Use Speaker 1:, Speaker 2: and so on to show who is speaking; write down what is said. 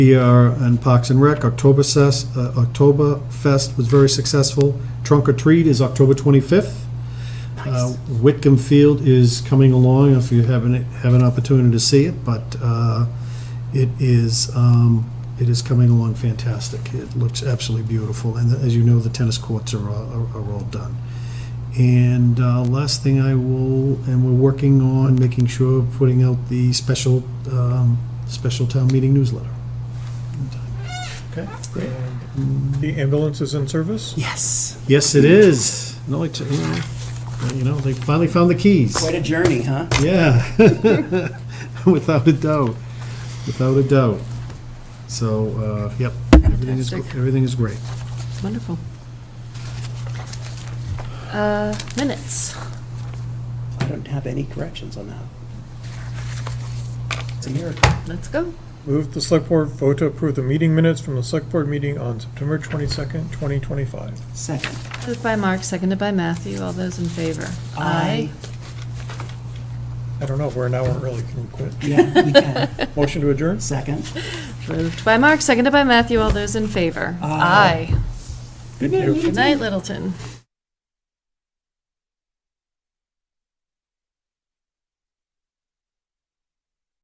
Speaker 1: PR and Parks and Rec, October Fest, October Fest was very successful. Trunk or Treat is October 25th. Uh, Whitcomb Field is coming along, if you haven't, have an opportunity to see it, but uh, it is, um, it is coming along fantastic. It looks absolutely beautiful, and as you know, the tennis courts are, all- are are all done. And uh, last thing I will, and we're working on making sure, putting out the special, um, special town meeting newsletter.
Speaker 2: Okay, great. The ambulance is in service?
Speaker 3: Yes.
Speaker 1: Yes, it is. No, like, you know, you know, they finally found the keys.
Speaker 3: Quite a journey, huh?
Speaker 1: Yeah, without a doubt, without a doubt. So, uh, yep, everything is,
Speaker 4: Fantastic.
Speaker 1: everything is great.
Speaker 4: Wonderful. Uh, Minutes.
Speaker 3: I don't have any corrections on that. It's a miracle.
Speaker 4: Let's go.
Speaker 2: Move the select board vote to approve the meeting minutes from the select board meeting on September 22nd, 2025.
Speaker 3: Second.
Speaker 4: Moved by Mark, seconded by Matthew. All those in favor?
Speaker 3: Aye.
Speaker 2: I don't know, we're an hour early, can we quit?
Speaker 3: Yeah, we can.
Speaker 2: Motion to adjourn?
Speaker 3: Second.
Speaker 4: Moved by Mark, seconded by Matthew. All those in favor?
Speaker 3: Aye.
Speaker 4: Aye. Good night, Littleton.